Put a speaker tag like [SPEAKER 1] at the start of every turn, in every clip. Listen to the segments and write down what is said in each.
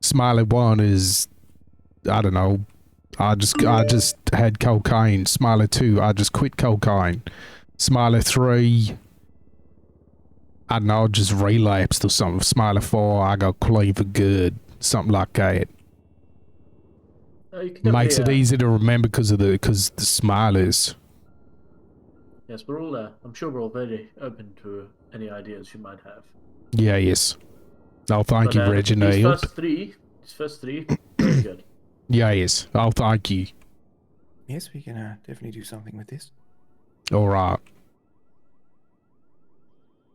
[SPEAKER 1] Smiley one is, I don't know. I just I just had cocaine. Smiley two, I just quit cocaine. Smiley three, I don't know, just relapsed or something. Smiley four, I got clean for good, something like that.
[SPEAKER 2] No, you can definitely,
[SPEAKER 1] Makes it
[SPEAKER 2] uh,
[SPEAKER 1] easy to remember because of the because the smileys.
[SPEAKER 2] Yes, we're all there. I'm sure we're all very open to any ideas you might have.
[SPEAKER 1] Yeah, yes. Oh, thank
[SPEAKER 2] But,
[SPEAKER 1] you,
[SPEAKER 2] uh, These
[SPEAKER 1] Reginald.
[SPEAKER 2] first three, these first three, very good.
[SPEAKER 1] Yeah, yes. Oh, thank you.
[SPEAKER 3] Yes, we can uh, definitely do something with this.
[SPEAKER 1] All right.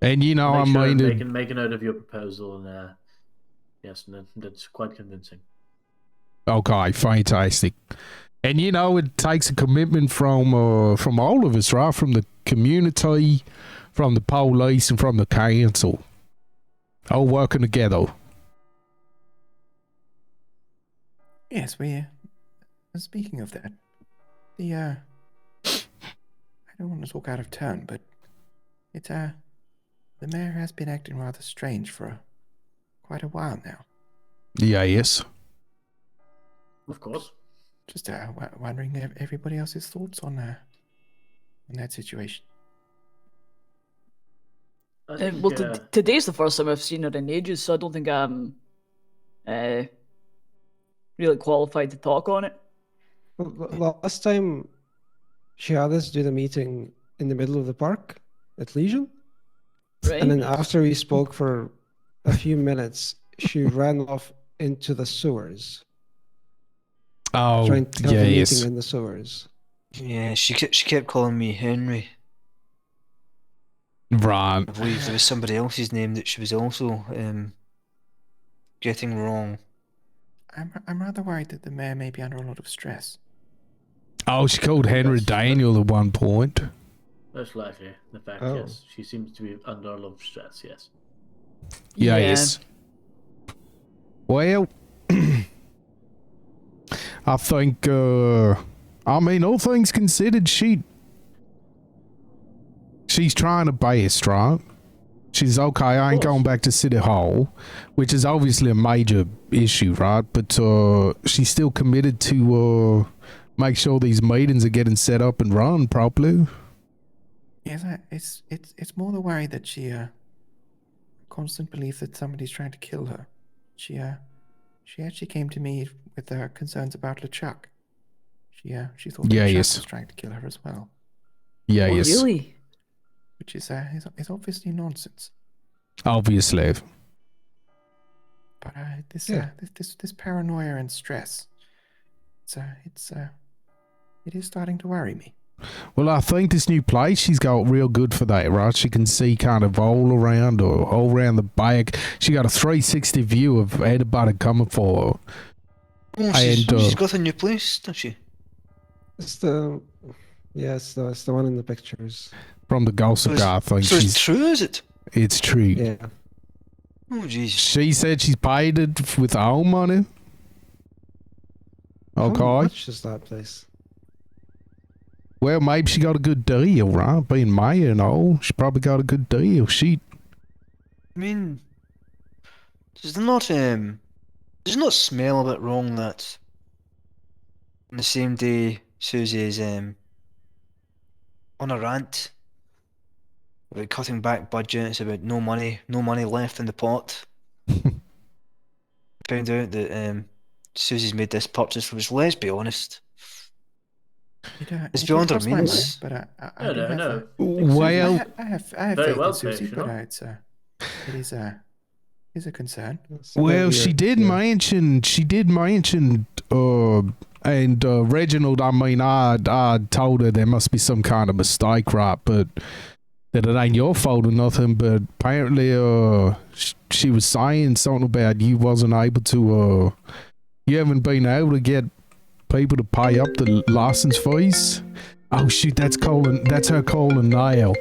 [SPEAKER 1] And you know,
[SPEAKER 2] Make
[SPEAKER 1] I
[SPEAKER 2] sure
[SPEAKER 1] mean,
[SPEAKER 2] they
[SPEAKER 1] it-
[SPEAKER 2] can make a note of your proposal, and uh, yes, and that- that's quite convincing.
[SPEAKER 1] okay, fantastic. And you know, it takes a commitment from uh, from all of us, right? From the community, from the police, and from the council, all working together.
[SPEAKER 3] Yes, we. Uh, speaking of that, the uh, I don't want to talk out of turn, but it's uh, the mayor has been acting rather strange for uh, quite a while now.
[SPEAKER 1] Yeah, yes.
[SPEAKER 2] Of course.
[SPEAKER 3] Just uh, w- wondering if everybody else's thoughts on uh, on that situation.
[SPEAKER 2] I
[SPEAKER 4] Uh,
[SPEAKER 2] think,
[SPEAKER 4] well, t-
[SPEAKER 2] uh,
[SPEAKER 4] today's the first time I've seen her in ages, so I don't think I'm uh, really qualified to talk on it.
[SPEAKER 5] Well, l- Last time she had us do the meeting in the middle of the park at Legion.
[SPEAKER 4] Right?
[SPEAKER 5] And then after we spoke for a few minutes, she ran off into the sewers.
[SPEAKER 1] Oh,
[SPEAKER 5] trying to have
[SPEAKER 1] yeah,
[SPEAKER 5] a meeting
[SPEAKER 1] yes.
[SPEAKER 5] in the sewers.
[SPEAKER 6] Yeah, she kept she kept calling me Henry.
[SPEAKER 1] Right.
[SPEAKER 6] I believe there was somebody else's name that she was also um getting wrong.
[SPEAKER 3] I'm I'm rather worried that the mayor may be under a lot of stress.
[SPEAKER 1] Oh, she called Henry
[SPEAKER 2] Yes.
[SPEAKER 1] Daniel at one point.
[SPEAKER 2] most likely, the fact
[SPEAKER 5] Oh.
[SPEAKER 2] yes, she seems to be under a lot of stress. Yes.
[SPEAKER 1] Yeah, yes. Well, I think, uh, I mean, all things considered, she. She's trying her best, right? She's okay. I ain't
[SPEAKER 2] course.
[SPEAKER 1] going back to City Hall, which is obviously a major issue, right? But uh, she's still committed to uh, make sure these meetings are getting set up and run properly.
[SPEAKER 3] Yes, I, it's it's it's more the worry that she uh constant belief that somebody's trying to kill her. She uh she actually came to me with uh, concerns about LeChuck. She uh she thought
[SPEAKER 1] Yeah,
[SPEAKER 3] LeChuck
[SPEAKER 1] yes.
[SPEAKER 3] was trying to kill her as well,
[SPEAKER 1] Yeah,
[SPEAKER 4] Oh,
[SPEAKER 1] yes,
[SPEAKER 4] Really?
[SPEAKER 3] which is uh is, is obviously nonsense.
[SPEAKER 1] obviously.
[SPEAKER 3] But uh, this,
[SPEAKER 5] Yeah.
[SPEAKER 3] uh, this this this paranoia and stress, it's uh, it's uh, it is starting to worry me.
[SPEAKER 1] Well, I think this new place she's got real good for that, right? She can see kind of all around or all around the back. She got a 360 view of everybody coming for her.
[SPEAKER 6] Oh,
[SPEAKER 1] I
[SPEAKER 6] she's,
[SPEAKER 1] adore-
[SPEAKER 6] she's got a new place, does she?
[SPEAKER 5] It's the yeah, it's the, it's the one in the pictures.
[SPEAKER 1] from the gossip
[SPEAKER 6] So it's-
[SPEAKER 1] guy. I think
[SPEAKER 6] so it's
[SPEAKER 1] she's,
[SPEAKER 6] true, is it?
[SPEAKER 1] it's true.
[SPEAKER 5] Yeah.
[SPEAKER 6] Oh jeez.
[SPEAKER 1] She said she's paid it f- with her own money.
[SPEAKER 6] Oh,
[SPEAKER 1] Okay.
[SPEAKER 5] How much is that place?
[SPEAKER 1] Well, maybe she got a good deal, right? Being mayor and all, she probably got a good deal. She,
[SPEAKER 6] I mean, does it not um, does it not smell a bit wrong that on the same day Susie's um on a rant about cutting back budgets, about no money, no money left in the pot. Found out that um, Susie's made this purchase, which let's be honest,
[SPEAKER 3] It, uh,
[SPEAKER 6] It's
[SPEAKER 3] it- it
[SPEAKER 6] beyond our
[SPEAKER 3] crossed my mind,
[SPEAKER 6] means.
[SPEAKER 3] But uh, I, I
[SPEAKER 2] No,
[SPEAKER 3] do
[SPEAKER 2] no,
[SPEAKER 3] have, uh,
[SPEAKER 2] no.
[SPEAKER 3] I
[SPEAKER 1] well,
[SPEAKER 3] ha- I have, I have
[SPEAKER 2] Very
[SPEAKER 3] faith
[SPEAKER 2] well
[SPEAKER 3] in Susie,
[SPEAKER 2] said, you
[SPEAKER 3] but
[SPEAKER 2] know.
[SPEAKER 3] uh, it's uh, it is uh, is a concern.
[SPEAKER 5] It's
[SPEAKER 1] Well,
[SPEAKER 5] maybe
[SPEAKER 1] she
[SPEAKER 5] a-
[SPEAKER 1] did
[SPEAKER 5] yeah.
[SPEAKER 1] mention she did mention uh and uh, Reginald. I mean, I I told her there must be some kind of mistake, right? But that it ain't your fault or nothing. But apparently, uh, sh- she was saying something about you wasn't able to uh, you haven't been able to get people to pay up the license fees. Oh shoot, that's calling that's her calling Niall.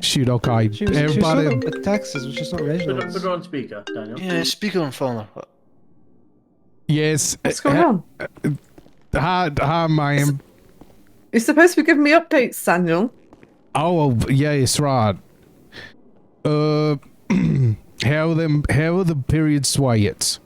[SPEAKER 1] Shoot, okay,
[SPEAKER 5] She was,
[SPEAKER 1] everybody.
[SPEAKER 5] she was sort of at Texas, which is not
[SPEAKER 2] Put, her- put
[SPEAKER 5] Reginald's.
[SPEAKER 2] her on speaker, Daniel.
[SPEAKER 6] yeah, speaker on fire.
[SPEAKER 1] yes, uh,
[SPEAKER 7] What's going on?
[SPEAKER 1] hi, hi, ma'am.
[SPEAKER 7] You're supposed to be giving me updates, Daniel.
[SPEAKER 1] Oh yeah, it's right. Uh, how them? How are the period swayets?